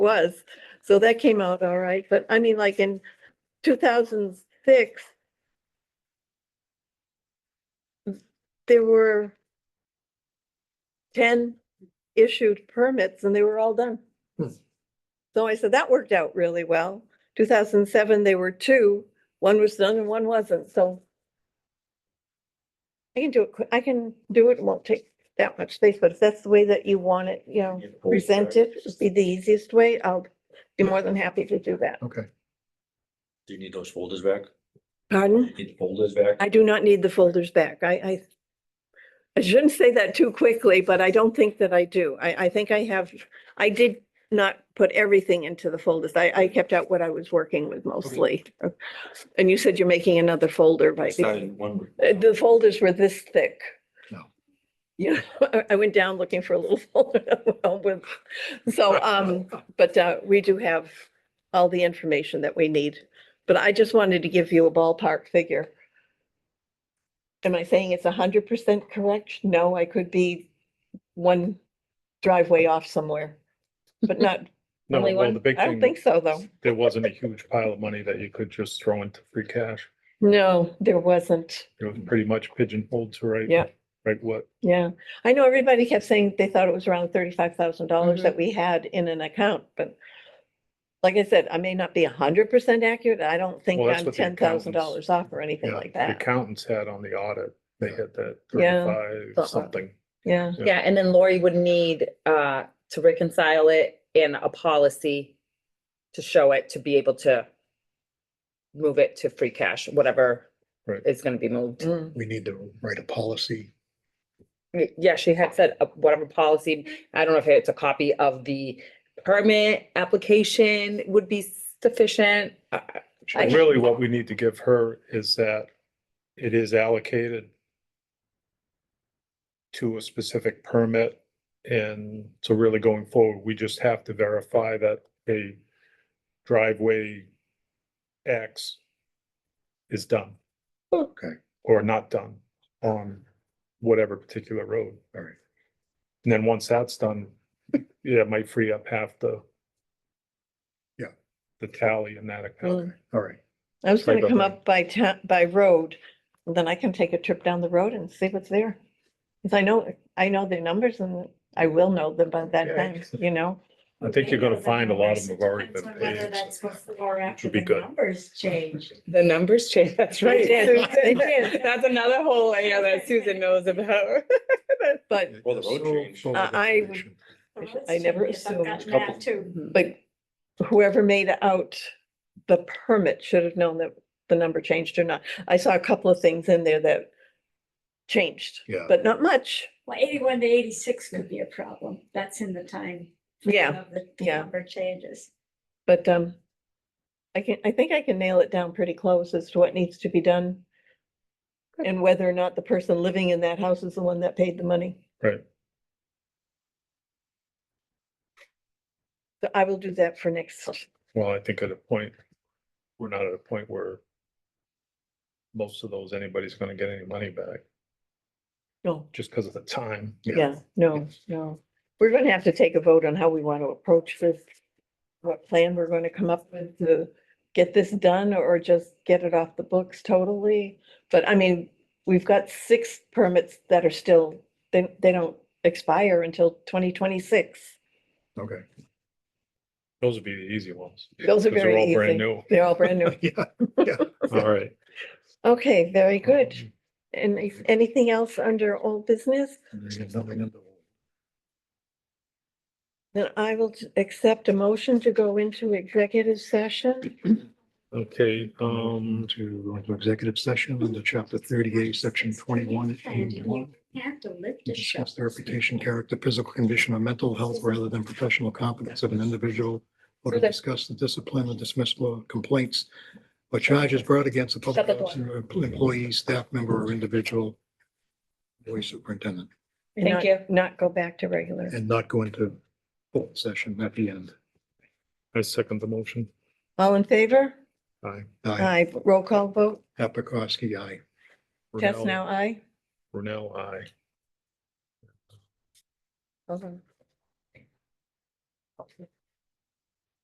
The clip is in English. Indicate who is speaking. Speaker 1: was. So that came out all right, but I mean, like in two thousand six, there were ten issued permits and they were all done.
Speaker 2: Hmm.
Speaker 1: So I said, that worked out really well. Two thousand seven, there were two, one was done and one wasn't, so I can do it, qui- I can do it, it won't take that much space, but if that's the way that you want it, you know, present it, would be the easiest way, I'll be more than happy to do that.
Speaker 2: Okay,
Speaker 3: Do you need those folders back?
Speaker 1: Pardon?
Speaker 3: Need the folders back?
Speaker 1: I do not need the folders back. I, I I shouldn't say that too quickly, but I don't think that I do. I, I think I have, I did not put everything into the folders. I, I kept out what I was working with mostly. And you said you're making another folder, right?
Speaker 3: Started one.
Speaker 1: Uh, The folders were this thick.
Speaker 2: No.
Speaker 1: You know, I- I went down looking for a little folder. with- So, um, but, uh, we do have all the information that we need. But I just wanted to give you a ballpark figure. Am I saying it's a hundred percent correct? No, I could be one driveway off somewhere, but not,
Speaker 4: No,
Speaker 5: Only
Speaker 4: well,
Speaker 5: one?
Speaker 4: the big
Speaker 1: I don't think
Speaker 4: thing,
Speaker 1: so though.
Speaker 4: there wasn't a huge pile of money that you could just throw into free cash.
Speaker 1: No, there wasn't.
Speaker 4: It was pretty much pigeonholed to right.
Speaker 1: Yeah.
Speaker 4: Right, what,
Speaker 1: Yeah, I know everybody kept saying they thought it was around thirty-five thousand dollars
Speaker 4: Mm-hmm.
Speaker 5: Mhm.
Speaker 1: that we had in an account, but like I said, I may not be hundred percent accurate. I don't think
Speaker 4: Well, that's
Speaker 1: I'm
Speaker 4: what the
Speaker 1: ten thousand dollars off
Speaker 4: accountants-
Speaker 1: or anything
Speaker 4: yeah,
Speaker 1: like
Speaker 4: the
Speaker 1: that.
Speaker 4: accountants had on the audit, they had that
Speaker 1: Yeah.
Speaker 4: thirty-five
Speaker 1: Thought-
Speaker 4: something.
Speaker 1: Yeah,
Speaker 4: Yeah.
Speaker 5: Yeah, and then Lori would need uh to reconcile it in a policy to show it, to be able to move it to free cash, whatever
Speaker 4: Right.
Speaker 5: is gonna be moved.
Speaker 1: Mm.
Speaker 2: we need to write a policy.
Speaker 5: Y- Yeah, she had said uh, whatever policy, I don't know if it's a copy of the permit application would be sufficient. Uh, uh, I-
Speaker 4: Really, what we need to give her is that it is allocated to a specific permit. And so really going forward, we just have to verify that a driveway X is done.
Speaker 2: Okay,
Speaker 4: or not done on whatever particular road.
Speaker 2: all right.
Speaker 4: And then once that's done, yeah, it might free up half the
Speaker 2: Yeah.
Speaker 4: the tally in that account.
Speaker 2: Okay, All right.
Speaker 1: I was
Speaker 4: Sorry
Speaker 1: gonna
Speaker 4: about
Speaker 1: come
Speaker 4: that.
Speaker 1: up by town, by road, and then I can take a trip down the road and see what's there. Cause I know, I know their numbers and I will know them by that
Speaker 4: Okay.
Speaker 1: time, you know?
Speaker 4: I think you're gonna find a lot of them have already
Speaker 6: Depends
Speaker 4: been
Speaker 6: on Whether
Speaker 4: paid.
Speaker 6: that's before or after
Speaker 4: Should be
Speaker 6: the
Speaker 4: good.
Speaker 6: numbers change.
Speaker 5: The numbers change, that's right.
Speaker 1: did, they did.
Speaker 5: That's another whole area that Susan knows about.
Speaker 1: But,
Speaker 3: Well, the road
Speaker 2: So
Speaker 3: changed.
Speaker 2: full of
Speaker 1: I- I-
Speaker 2: information.
Speaker 6: The
Speaker 1: should-
Speaker 6: roads
Speaker 1: I never
Speaker 6: change. I've gotten
Speaker 1: assumed.
Speaker 6: that
Speaker 3: Couple-
Speaker 6: too.
Speaker 1: but whoever made out the permit should have known that the number changed or not. I saw a couple of things in there that changed,
Speaker 2: Yeah,
Speaker 1: but not much.
Speaker 6: Well, eighty-one to eighty-six could be a problem. That's in the time. frame
Speaker 1: Yeah,
Speaker 6: of The the
Speaker 1: yeah.
Speaker 6: number changes.
Speaker 1: but, um, I can, I think I can nail it down pretty close as to what needs to be done and whether or not the person living in that house is the one that paid the money.
Speaker 4: Right.
Speaker 1: So I will do that for next.
Speaker 4: Well, I think at a point, we're not at a point where most of those, anybody's gonna get any money back
Speaker 1: No,
Speaker 4: just because of the time.
Speaker 1: Yeah, no, no. We're gonna have to take a vote on how we want to approach this. What plan we're going to come up with to get this done or just get it off the books totally. But I mean, we've got six permits that are still, they, they don't expire until twenty twenty-six.
Speaker 2: okay.
Speaker 4: Those would be the easy ones.
Speaker 1: Those are
Speaker 4: 'cause they're
Speaker 1: very
Speaker 4: all brand
Speaker 1: easy.
Speaker 4: new.
Speaker 1: They're all brand new.
Speaker 2: Yeah,
Speaker 4: All right.
Speaker 1: Okay, very
Speaker 4: Mm-hmm.
Speaker 1: good. And if anything else under old business?
Speaker 2: there's nothing in the-
Speaker 1: Then I will accept a motion to go into executive session.
Speaker 4: Okay, um,
Speaker 2: To go into executive session under chapter thirty-eight, section twenty-one, and one.
Speaker 6: You Have to lift
Speaker 2: to
Speaker 6: a
Speaker 2: Discuss
Speaker 6: shelf.
Speaker 2: the reputation, character, physical condition, or mental health rather than professional competence of an individual. Or to
Speaker 5: Okay.
Speaker 2: discuss the discipline or dismissal of complaints or charges brought against a public
Speaker 5: Shut the door.
Speaker 2: officer, employee, staff member, or individual. Or superintendent,
Speaker 1: and
Speaker 5: Thank
Speaker 1: not-
Speaker 5: you.
Speaker 1: Not go back to regular.
Speaker 2: and not go into full session at the end.
Speaker 4: I second the motion.
Speaker 1: All in favor?
Speaker 4: Aye.
Speaker 2: Aye,
Speaker 1: Aye, roll call vote,
Speaker 2: Apikowski, aye.
Speaker 1: test
Speaker 4: Brunel-
Speaker 1: now, aye.
Speaker 4: Brunel, aye.
Speaker 1: Hold on.